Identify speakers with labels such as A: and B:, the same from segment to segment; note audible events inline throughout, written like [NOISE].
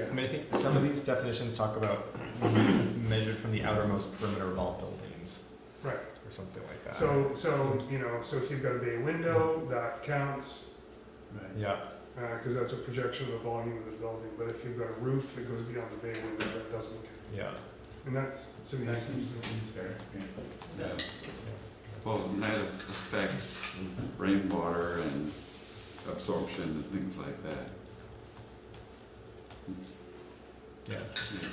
A: I mean, I think some of these definitions talk about measured from the outermost perimeter of all buildings.
B: Right.
A: Or something like that.
B: So, so, you know, so if you've got a bay window, that counts,
A: Yeah,
B: uh, cause that's a projection of the volume of the building, but if you've got a roof that goes beyond the bay window, that doesn't count.
A: yeah.
B: And that's, to me, seems,
C: Well, net effects, rainwater and absorption and things like that.
A: Yeah,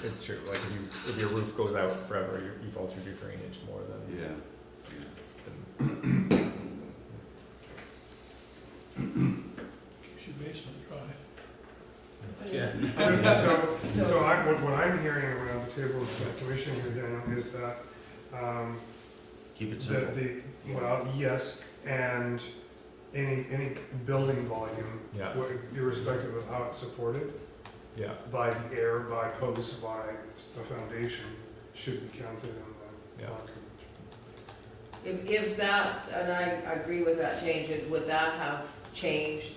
A: it's true. Like you, if your roof goes out forever, you- you've altered your drainage more than.
C: Yeah,
A: than-
D: Yeah.
B: so,
A: [LAUGHS]
B: so so I, what, what I'm hearing around the table with the commission here, Daniel, is that, um,
D: Keep it
B: that
D: simple.
B: the, well, yes, and any, any building volume,
A: Yeah,
B: wh- irrespective of how it's supported,
A: yeah,
B: by the air, by posts, by the foundation, should be counted in
A: Yeah.
B: the lot
E: If, if that, and I agree with that change, and would that have changed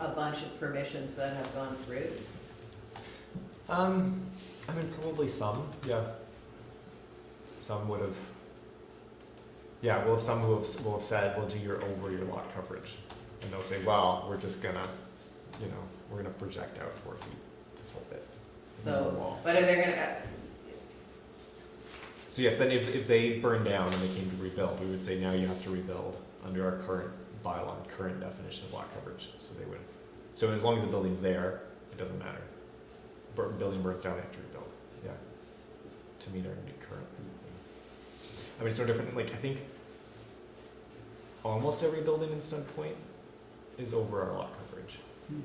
E: a bunch of permissions that have gone through?
A: um, I mean, probably some, yeah. Some would have. Yeah, well, some will have, will have said, well, do your over your lot coverage, and they'll say, well, we're just gonna, you know, we're gonna project out four feet this whole bit, this whole
E: So-
A: wall.
E: But are they gonna,
A: So yes, then if, if they burn down and they came to rebuild, we would say now you have to rebuild under our current bylaw, and current definition of lot coverage. So they would, so as long as the building's there, it doesn't matter. Bur- Building burns down, they have to rebuild, yeah. To meet our new current. thing. I mean, it's so different, like, I think almost every building in Stone Point is over our lot coverage.
C: Hmm.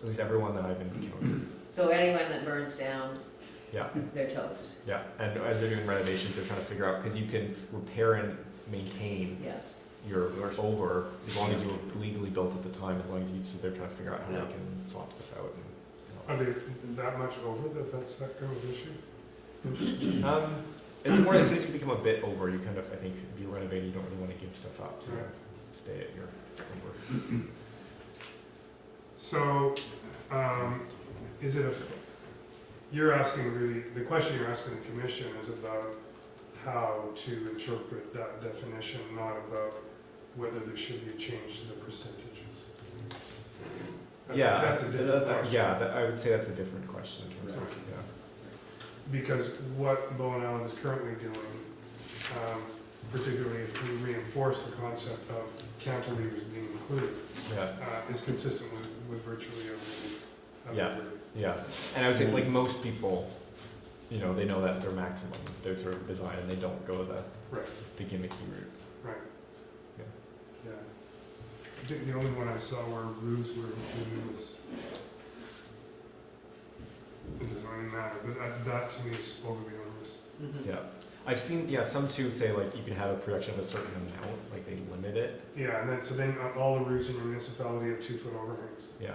A: At least everyone that I've encountered,
E: so anyone that burns down,
A: yeah.
E: they're toast,
A: Yeah, and as they're doing renovations, they're trying to figure out, because you can repair and maintain
E: yes.
A: your over as long as you were legally built at the time, as long as you, so they're trying to figure out how they
D: Yeah.
A: can swap stuff out and.
B: Are they that much over that that's that kind of issue?
A: you know. Um, it's more, as soon as you become a bit over, you kind of, I think, if you renovate, you don't really want to give stuff up, so you
B: Right.
A: stay at your over.
B: So, um, is it a, you're asking really, the question you're asking the commission is about how to interpret that definition, not about whether there should be a change to the percentages. That's-
A: Yeah,
B: That's a
A: that-
B: different
A: that-
B: question.
A: Yeah, that, I would say that's a different question in terms of,
B: Right.
A: yeah.
B: because what Bowen Island is currently doing, um, particularly if we reinforce the concept of cantilevers being included,
A: Yeah.
B: uh, is consistent with, with virtually every.
A: Yeah.
B: every-
A: Yeah, and I would say like most people, you know, they know that's their maximum, their sort of design, and they don't go the
B: Right.
A: the gimmicky route.
B: Yeah. I think the only one I saw where roofs were included was, it doesn't really matter, but that, that to me is overly onerous.
E: Mhm.
A: Yeah, I've seen yeah some too say like you can have a production of a certain amount, like they limit it.
B: Yeah, and then, so then uh, all the roofs in your municipality have two-foot overhangs.
A: Yeah,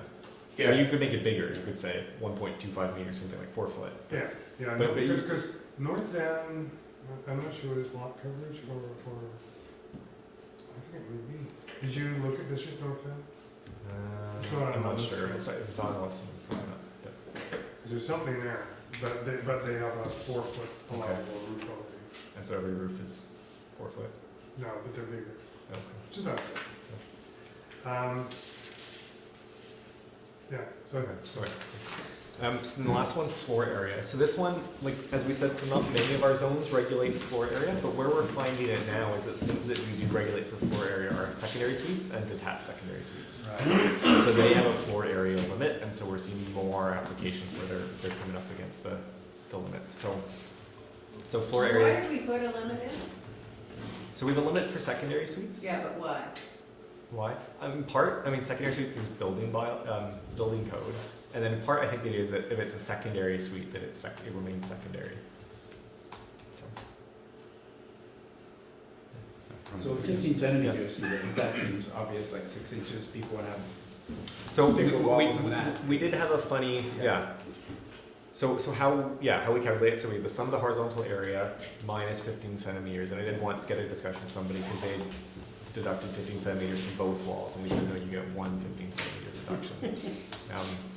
A: Or you could make it bigger. You could say 1.25 meters, something like four foot.
B: Yeah, yeah,
A: But- but you-
B: because, because North Van, I'm not sure it's lot coverage or, or, I think it would be. Did you look at District North Van? It's
A: Uh,
B: not
A: I'm
B: on
A: not
B: the
A: sure.
B: list.
A: It's, not- it's not on the list. Probably not. Yeah.
B: Is there something there? But they, but they have a four-foot allowable roof overhang.
A: And so every roof is four foot.
B: No, but they're bigger,
A: Okay.
B: which is not bad. Um, yeah, so,
A: Okay, sorry. Um, so then the last one, floor area. So this one, like, as we said, so not many of our zones regulate floor area, but where we're finding it now is that things that we do regulate for floor area are secondary suites and detached secondary suites. So they have a floor area limit, and so we're seeing more applications where they're, they're coming up against the, the limits, so. So floor
E: Why
A: area,
E: did we put a limit in?
A: so we have a limit for secondary suites?
E: Yeah, but why?
A: Why? Um, in part, I mean, secondary suites is building by, um, building code, and then in part, I think it is that if it's a secondary suite, that it's sec- it remains secondary. So,
D: So fifteen centimeters, that seems obvious, like six inches, people would have.
A: So we,
D: Bigger
A: we,
D: walls than that.
A: we did have a funny,
D: Yeah.
A: yeah. So, so how, yeah, how we calculate it, so we have the sum of the horizontal area minus fifteen centimeters, and I did once get a discussion with somebody, because they had
D: [LAUGHS]
A: deducted fifteen centimeters from both walls, and we said, no, you get one fifteen centimeter deduction. Um,